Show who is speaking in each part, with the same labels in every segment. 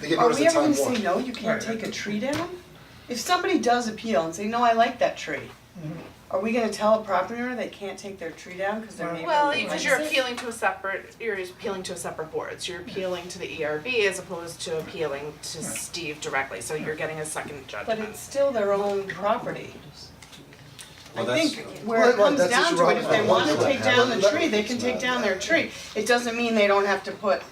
Speaker 1: They gave
Speaker 2: Are
Speaker 1: notice
Speaker 2: we
Speaker 1: at
Speaker 2: ever
Speaker 1: time
Speaker 2: gonna say,
Speaker 1: one.
Speaker 2: no, you can't take a tree down? If somebody does appeal and say, no, I like that tree, are we gonna tell a property owner they can't take their tree down because their neighbor
Speaker 3: Well,
Speaker 2: likes it?
Speaker 3: because you're appealing to a separate, you're appealing to a separate board, so you're appealing to the
Speaker 4: E
Speaker 3: ERB as opposed to appealing to Steve directly, so you're getting a second
Speaker 2: But
Speaker 3: judgment.
Speaker 2: it's still their own property. I
Speaker 5: Well, that's-
Speaker 2: think where it
Speaker 1: Well,
Speaker 2: comes
Speaker 1: that's
Speaker 2: down
Speaker 1: what
Speaker 2: to
Speaker 1: you're
Speaker 2: it, if they
Speaker 1: right.
Speaker 2: wanna
Speaker 1: Well,
Speaker 2: take down the
Speaker 1: let-
Speaker 2: tree, they can take down their tree. It doesn't mean they don't have to put,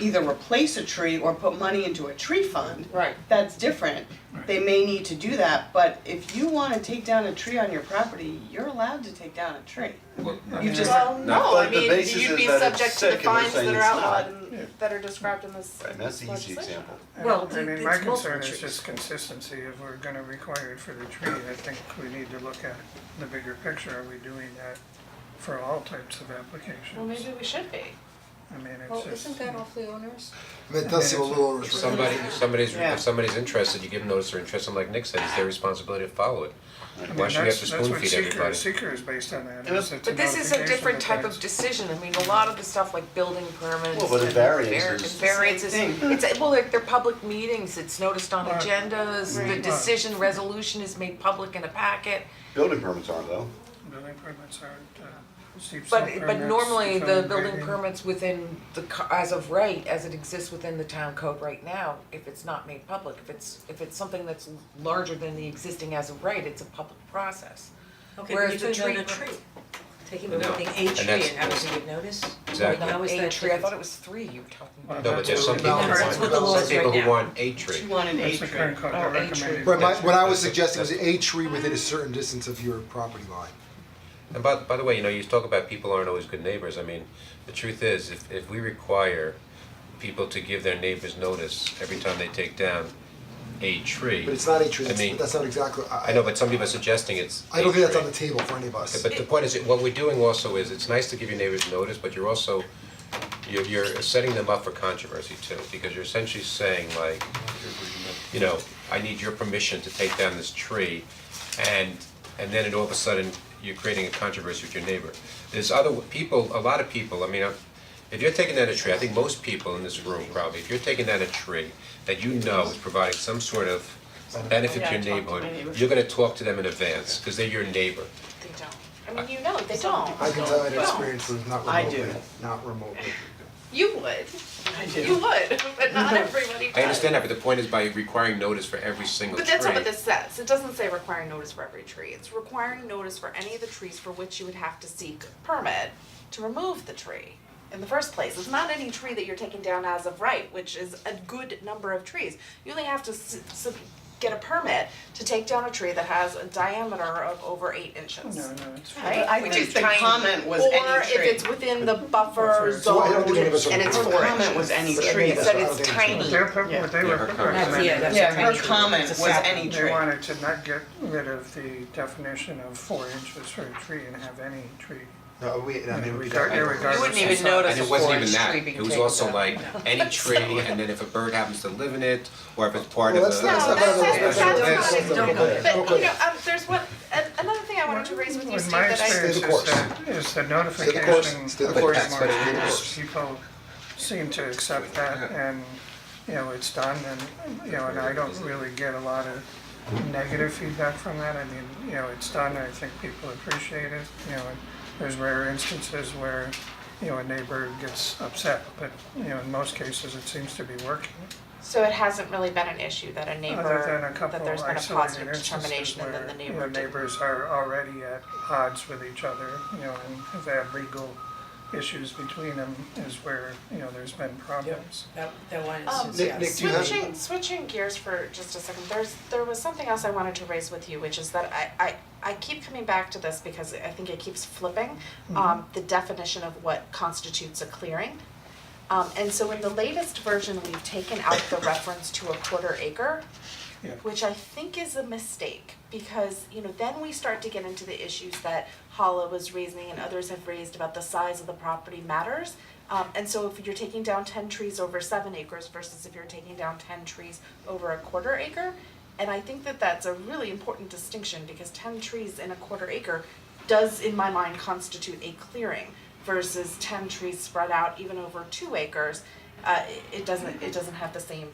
Speaker 2: either replace a tree or put money into a tree fund.
Speaker 3: Right.
Speaker 2: That's different. They may need to do that, but if you wanna take down a tree on your property, you're allowed to take down a tree.
Speaker 5: Well, no.
Speaker 2: You've just-
Speaker 3: Well, no, I
Speaker 5: but the
Speaker 3: mean,
Speaker 5: basis
Speaker 3: you'd
Speaker 5: is
Speaker 3: be
Speaker 5: that it's
Speaker 3: subject to the
Speaker 5: sick and they're
Speaker 3: fines that
Speaker 5: saying
Speaker 3: are
Speaker 5: it's not.
Speaker 3: outlawed and that are described in this
Speaker 5: Right, and that's the easy
Speaker 3: legislation.
Speaker 5: example.
Speaker 4: Well,
Speaker 6: I
Speaker 4: it's
Speaker 6: mean, my
Speaker 4: multiple
Speaker 6: concern is
Speaker 4: trees.
Speaker 6: just consistency, if we're gonna require it for the tree, I think we need to look at the bigger picture, are we doing that for all types of applications?
Speaker 3: Well, maybe we should be.
Speaker 6: I mean, it's
Speaker 7: Well,
Speaker 6: just.
Speaker 7: isn't that awfully onerous?
Speaker 1: I mean, it does seem a little
Speaker 5: If
Speaker 1: overrestrictive.
Speaker 5: somebody, if somebody's,
Speaker 2: Yeah.
Speaker 5: if somebody's interested, you give them notice they're interested, and like Nick said, it's their responsibility to follow it.
Speaker 6: I mean,
Speaker 5: Why should we have
Speaker 6: that's-
Speaker 5: to spoon feed everybody?
Speaker 6: That's what seeker, seeker is based on that, is it's
Speaker 4: But this is a different type of decision, I mean, a lot of the stuff like building permits
Speaker 5: Well, but it
Speaker 4: and
Speaker 5: varies.
Speaker 4: var-
Speaker 5: It's the
Speaker 4: variances,
Speaker 2: same
Speaker 4: it's, well, they're, they're public meetings, it's noticed on
Speaker 6: Right.
Speaker 4: agendas, the
Speaker 6: Right.
Speaker 4: decision, resolution is made public in a packet.
Speaker 5: Building permits are though.
Speaker 6: Building permits aren't, uh, steep slope
Speaker 4: But, but
Speaker 6: permits,
Speaker 4: normally, the
Speaker 6: zoning
Speaker 4: building
Speaker 6: grading.
Speaker 4: permits within the, co- as of right, as it exists within the town code right now, if it's not made public, if it's, if it's something that's larger than the existing as of right, it's a public process.
Speaker 8: Okay,
Speaker 4: Whereas
Speaker 8: but even
Speaker 4: the
Speaker 8: down
Speaker 4: tree-
Speaker 8: a tree, taking
Speaker 5: No.
Speaker 8: the thing, a
Speaker 5: And
Speaker 8: tree
Speaker 5: that's-
Speaker 8: and having to give notice,
Speaker 5: Exactly.
Speaker 8: How is
Speaker 4: Eight
Speaker 8: that
Speaker 4: tree, I thought
Speaker 8: different?
Speaker 4: it was three you were talking
Speaker 6: Well,
Speaker 4: about.
Speaker 5: No, but there's some people
Speaker 6: Well,
Speaker 5: who
Speaker 6: that's what the law
Speaker 5: want, some
Speaker 8: is right
Speaker 5: people who
Speaker 8: now.
Speaker 5: want a tree.
Speaker 2: You want an
Speaker 6: That's
Speaker 2: A
Speaker 6: the
Speaker 2: tree.
Speaker 6: current code,
Speaker 4: Oh,
Speaker 6: they're
Speaker 4: A tree.
Speaker 6: recommending.
Speaker 1: Right, my,
Speaker 5: That's-
Speaker 1: what I was
Speaker 5: that's a-
Speaker 1: suggesting was
Speaker 5: that's-
Speaker 1: a tree within a certain distance of your property line.
Speaker 5: And by, by the way, you know, you talk about people aren't always good neighbors, I mean, the truth is, if, if we require people to give their neighbors notice every time they take down a tree.
Speaker 1: But it's not a tree,
Speaker 5: I
Speaker 1: that's,
Speaker 5: mean,
Speaker 1: that's not exactly, I,
Speaker 5: I know, but some people are suggesting it's
Speaker 1: I don't think
Speaker 5: a
Speaker 1: that's on
Speaker 5: tree.
Speaker 1: the table for any of us.
Speaker 5: But the point is, what we're doing also is, it's nice to give your neighbors notice, but you're also, you're you're setting them up for controversy too, because you're essentially saying like, you know, I need your permission to take down this tree, and and then it all of a sudden, you're creating a controversy with your neighbor. There's other people, a lot of people, I mean, I'm- if you're taking down a tree, I think most people in this room probably, if you're taking down a tree that you know is providing some sort of benefit
Speaker 2: Yeah,
Speaker 5: to your
Speaker 2: I talked to my
Speaker 5: neighborhood,
Speaker 2: neighbor.
Speaker 5: you're gonna talk to them in advance, cause they're your neighbor.
Speaker 3: They don't. I mean, you know, they don't.
Speaker 1: I can tell you
Speaker 3: No.
Speaker 1: an experience with not
Speaker 2: I
Speaker 1: remotely,
Speaker 2: do.
Speaker 1: not remotely.
Speaker 3: You would,
Speaker 2: I
Speaker 3: you
Speaker 2: do.
Speaker 3: would, but not everybody does.
Speaker 5: Mm-hmm. I understand that, but the point is by requiring notice for every single tree.
Speaker 3: But that's not what this says, it doesn't say requiring notice for every tree, it's requiring notice for any of the trees for which you would have to seek permit to remove the tree in the first place, it's not any tree that you're taking down as of right, which is a good number of trees. You only have to s- s- get a permit to take down a tree that has a diameter of over eight inches.
Speaker 6: No, no, it's.
Speaker 3: Right?
Speaker 2: I
Speaker 3: Which
Speaker 2: think
Speaker 3: is
Speaker 2: the
Speaker 3: tiny.
Speaker 2: comment was
Speaker 3: Or
Speaker 2: any
Speaker 3: if
Speaker 2: tree.
Speaker 3: it's within the buffer
Speaker 6: Buffer.
Speaker 1: So I
Speaker 3: zone
Speaker 1: don't think any
Speaker 3: and
Speaker 1: of us are-
Speaker 3: it's
Speaker 1: Her
Speaker 3: four
Speaker 2: comment
Speaker 3: inches.
Speaker 2: was any
Speaker 3: And
Speaker 2: tree.
Speaker 3: It said
Speaker 1: I don't
Speaker 3: it's
Speaker 1: think it's
Speaker 3: tiny.
Speaker 6: Their, per-
Speaker 2: Yeah.
Speaker 6: what they
Speaker 5: Yeah,
Speaker 6: were
Speaker 5: her
Speaker 6: recommending.
Speaker 5: comments.
Speaker 8: Yeah, that's
Speaker 2: Yeah,
Speaker 8: a tiny
Speaker 2: her
Speaker 8: tree.
Speaker 2: comment
Speaker 8: It's a
Speaker 2: was
Speaker 8: sapling.
Speaker 2: any
Speaker 6: They
Speaker 2: tree.
Speaker 6: wanted to not get rid of the definition of four inches for a tree and have any tree.
Speaker 1: No, we, I mean, we
Speaker 6: Regard-
Speaker 4: You
Speaker 6: irregardless
Speaker 4: wouldn't
Speaker 6: of
Speaker 4: even
Speaker 6: size.
Speaker 4: notice
Speaker 5: And
Speaker 4: a
Speaker 5: it wasn't even
Speaker 4: forest
Speaker 5: that,
Speaker 4: tree being
Speaker 5: it was
Speaker 4: taken
Speaker 5: also
Speaker 4: down.
Speaker 5: like any tree, and then if a bird happens to live in it, or if it's part of
Speaker 1: Well, that's
Speaker 5: a special
Speaker 1: not-
Speaker 3: No, that's, that's,
Speaker 1: Special
Speaker 3: that's
Speaker 1: events.
Speaker 3: not
Speaker 1: Don't go there.
Speaker 3: it, but,
Speaker 6: Oh,
Speaker 1: Don't go
Speaker 3: you know,
Speaker 1: there.
Speaker 3: um, there's one, an- another thing I wanted to raise with you, Steve, that I.
Speaker 1: Stay the
Speaker 6: In my
Speaker 1: course.
Speaker 6: experience uh, is that, is the
Speaker 1: course.
Speaker 6: notification
Speaker 1: Stay the
Speaker 6: of
Speaker 1: course.
Speaker 6: landmarks,
Speaker 5: Stay the course.
Speaker 6: people seem to accept that and, you know, it's done and, you know, and I don't really get a lot of negative feedback from that, I mean, you know, it's done, I think people appreciate it, you know, and there's rare instances where, you know, a neighbor gets upset, but, you know, in most cases, it seems to be working.
Speaker 3: So it hasn't really been an issue that a
Speaker 6: Other than
Speaker 3: neighbor,
Speaker 6: Oh, a couple
Speaker 3: that there's been a
Speaker 6: isolated
Speaker 3: positive
Speaker 6: instances
Speaker 3: determination and
Speaker 6: where,
Speaker 3: then the
Speaker 6: you
Speaker 3: neighbor
Speaker 6: know,
Speaker 3: didn't.
Speaker 6: neighbors are already at odds with each other, you know, and have had legal issues between them is where, you know, there's been problems.
Speaker 8: That, that one
Speaker 3: Um,
Speaker 8: is,
Speaker 1: Nick- Nick,
Speaker 8: yes.
Speaker 1: do you have-
Speaker 3: Switching, switching gears for just a second, there's, there was something else I wanted to raise with you, which is that I, I, I keep coming back to this because I think it keeps flipping,
Speaker 6: Mm-hmm.
Speaker 3: um, the definition of what constitutes a clearing. Um, and so in the latest version, we've taken out the reference to a quarter acre,
Speaker 6: Yeah.
Speaker 3: which I think is a mistake, because, you know, then we start to get into the issues that Hala was raising and others have raised about the size of the property matters. Um, and so if you're taking down ten trees over seven acres versus if you're taking down ten trees over a quarter acre, and I think that that's a really important distinction, because ten trees in a quarter acre does, in my mind, constitute a clearing versus ten trees spread out even over two acres, uh, it- it doesn't, it doesn't have the same